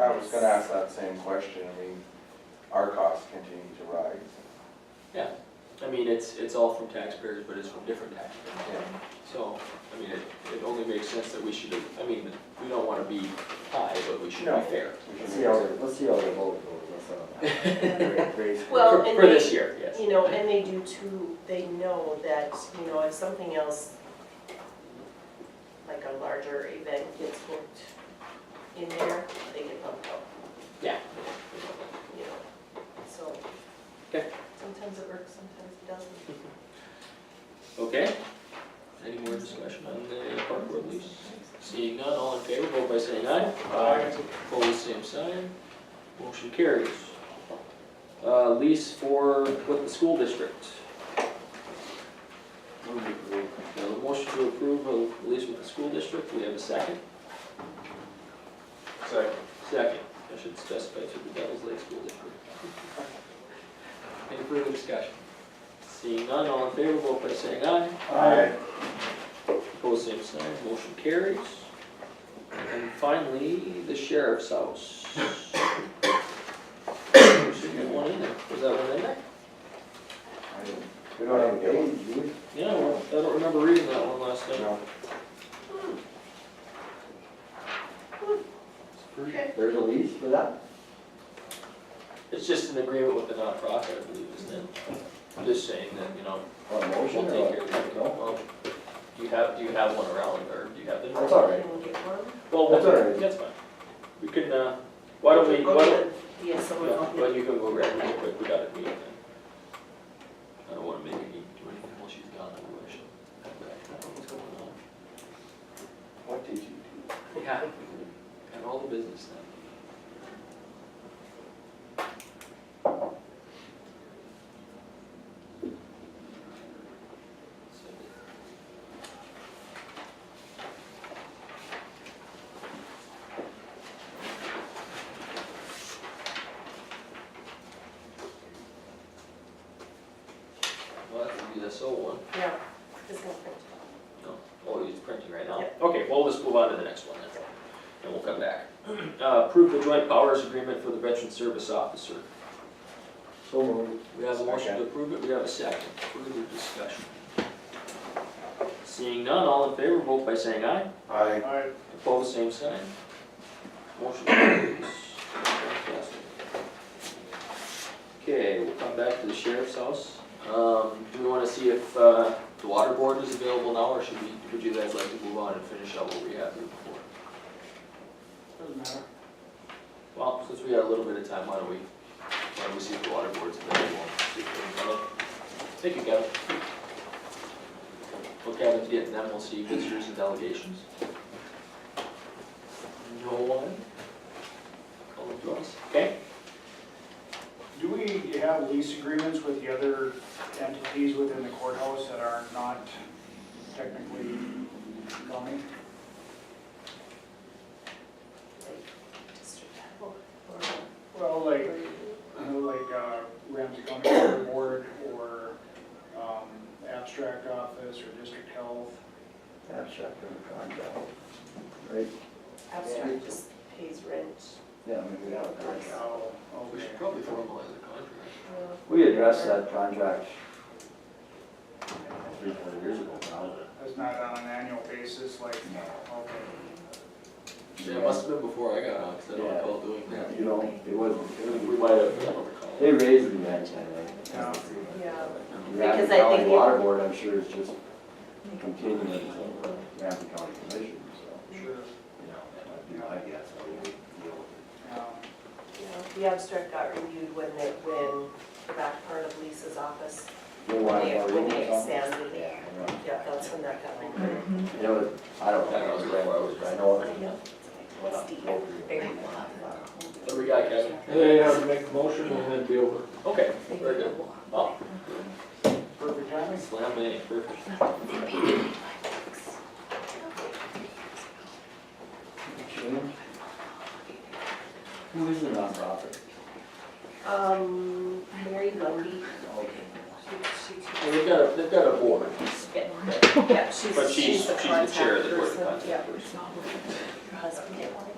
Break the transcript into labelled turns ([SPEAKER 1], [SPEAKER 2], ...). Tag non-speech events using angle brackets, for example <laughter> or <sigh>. [SPEAKER 1] I was gonna ask that same question, I mean, our costs continue to rise.
[SPEAKER 2] Yeah, I mean, it's, it's all from taxpayers, but it's from different taxpayers.
[SPEAKER 1] Yeah.
[SPEAKER 2] So, I mean, it, it only makes sense that we should, I mean, we don't wanna be high, but we should
[SPEAKER 1] No.
[SPEAKER 2] be fair.
[SPEAKER 1] We should
[SPEAKER 3] Let's see how, the- let's see how the vote goes, uh,
[SPEAKER 1] <laughs>
[SPEAKER 3] that's all. Raise-
[SPEAKER 2] For
[SPEAKER 4] Well, and
[SPEAKER 2] for this
[SPEAKER 4] they,
[SPEAKER 2] year, yes.
[SPEAKER 4] you know, and they do too, they know that, you know, if something else, like a larger event gets booked in there, they get bumped up,
[SPEAKER 2] Yeah.
[SPEAKER 4] you know, so.
[SPEAKER 2] Okay.
[SPEAKER 4] Sometimes it works, sometimes it doesn't.
[SPEAKER 2] Okay. Any more discussion on the park board lease? Seeing none, all in favor, vote by saying aye.
[SPEAKER 1] Aye.
[SPEAKER 2] Opposed, same sign. Motion carries. Uh, lease for, with the school district. We have a motion to approve a lease with the school district, we have a second.
[SPEAKER 1] Second.
[SPEAKER 2] Second, I should specify to the Devils Lake School District. Any further discussion? Seeing none, all in favor, vote by saying aye.
[SPEAKER 1] Aye.
[SPEAKER 2] Opposed, same sign, motion carries. And finally, the sheriff's house. There should be one in there, was that one in there?
[SPEAKER 3] We don't have a date, do we?
[SPEAKER 2] Yeah, well, I don't remember reading that one last night.
[SPEAKER 1] No,
[SPEAKER 4] Okay.
[SPEAKER 3] There's a lease for that?
[SPEAKER 2] It's just an agreement with the nonprofit, I believe, isn't it? I'm just saying that, you know,
[SPEAKER 3] On a
[SPEAKER 2] we'll
[SPEAKER 3] motion
[SPEAKER 2] take
[SPEAKER 3] or
[SPEAKER 2] care of it.
[SPEAKER 3] No?
[SPEAKER 2] Well, Do you have, do you have one around, or do you have the?
[SPEAKER 3] That's all right.
[SPEAKER 4] And we'll get one.
[SPEAKER 2] Well,
[SPEAKER 3] That's
[SPEAKER 2] we'll-
[SPEAKER 3] all right.
[SPEAKER 2] That's fine. We can, uh, why don't we, why don't,
[SPEAKER 4] Yeah, someone
[SPEAKER 2] yeah,
[SPEAKER 4] will
[SPEAKER 2] well, you can go grab it real quick, we got it, we got it. I don't wanna make any, do anything while she's gone, otherwise she'll come back, I don't know what's going
[SPEAKER 1] what did you do?
[SPEAKER 2] on. Yeah. And all the business now. Well, that would be the sole one.
[SPEAKER 4] Yeah, this one's print.
[SPEAKER 2] No, oh, he's printing right now?
[SPEAKER 4] Yeah.
[SPEAKER 2] Okay, well, let's move on to the next one then, and we'll come back. <clears throat> Uh, approve the joint powers agreement for the veteran service officer.
[SPEAKER 3] So moved.
[SPEAKER 2] We have a motion to
[SPEAKER 1] Second.
[SPEAKER 2] approve it, we have a second, further discussion. Seeing none, all in favor, vote by saying aye.
[SPEAKER 1] Aye.
[SPEAKER 2] Opposed, same sign. Motion carries. Fantastic. Okay, we'll come back to the sheriff's house. Um, do we wanna see if, uh, the water board is available now, or should we, would you guys like to move on and finish up what we had here before?
[SPEAKER 5] Doesn't matter.
[SPEAKER 2] Well, since we got a little bit of time, why don't we, why don't we see if the water board's available? see if they're available. Thank you, Kevin. Well, Kevin's getting them, we'll see visitors and delegations. No one? All of us, okay?
[SPEAKER 5] Do we have lease agreements with the other entities within the courthouse that are not technically county?
[SPEAKER 4] Like, district level or-
[SPEAKER 5] Well, like, like uh, Ramsey County Water Board or um, Abstract Office or District Health?
[SPEAKER 3] Abstract of contract. Right?
[SPEAKER 4] Abstract just pays rent.
[SPEAKER 3] Yeah, I mean, we have a contract.
[SPEAKER 5] Oh,
[SPEAKER 2] We
[SPEAKER 5] okay.
[SPEAKER 2] should probably formalize the contract.
[SPEAKER 4] uh,
[SPEAKER 3] We addressed that contract three, four years ago now.
[SPEAKER 5] That's not on an annual basis, like, okay.
[SPEAKER 2] Yeah, it must have been before I got on, because I don't recall doing that.
[SPEAKER 3] You know, it wasn't, it was,
[SPEAKER 2] We might have, I don't
[SPEAKER 3] they
[SPEAKER 2] recall.
[SPEAKER 3] raised the match, I
[SPEAKER 5] Yeah.
[SPEAKER 3] think.
[SPEAKER 4] Yeah.
[SPEAKER 3] Ramsey
[SPEAKER 4] Because I
[SPEAKER 3] County
[SPEAKER 4] think it-
[SPEAKER 3] Water Board, I'm sure is just continuing to Ramsey County Commission, so, you
[SPEAKER 5] Sure.
[SPEAKER 3] know, that might be my guess. I would deal with it.
[SPEAKER 5] Um,
[SPEAKER 4] Yeah, The abstract got reviewed when they, when that part of Lisa's office,
[SPEAKER 3] They
[SPEAKER 4] when
[SPEAKER 3] want
[SPEAKER 4] they,
[SPEAKER 3] more
[SPEAKER 4] when
[SPEAKER 3] room or
[SPEAKER 4] they
[SPEAKER 3] something?
[SPEAKER 4] expanded it.
[SPEAKER 3] Yeah, I know.
[SPEAKER 4] Yeah, that's when that got
[SPEAKER 5] Um,
[SPEAKER 4] reviewed.
[SPEAKER 3] You know, it- I don't know, I was right where I was, but I know. it- what I'm-
[SPEAKER 2] What do we got, Kevin?
[SPEAKER 6] They have to make a motion and then be over.
[SPEAKER 2] Okay, very good. Well,
[SPEAKER 5] Perfect timing.
[SPEAKER 2] slam it, perfect.
[SPEAKER 3] Who is the nonprofit?
[SPEAKER 4] Um, Mary Lundy, she,
[SPEAKER 2] Well, They've got a, they've got a board.
[SPEAKER 4] she, yeah, she's,
[SPEAKER 2] But she's,
[SPEAKER 4] she's
[SPEAKER 2] she's
[SPEAKER 4] the
[SPEAKER 2] the
[SPEAKER 4] contact
[SPEAKER 2] chair of the board of
[SPEAKER 4] person. Yeah,
[SPEAKER 2] contact person.
[SPEAKER 4] her husband.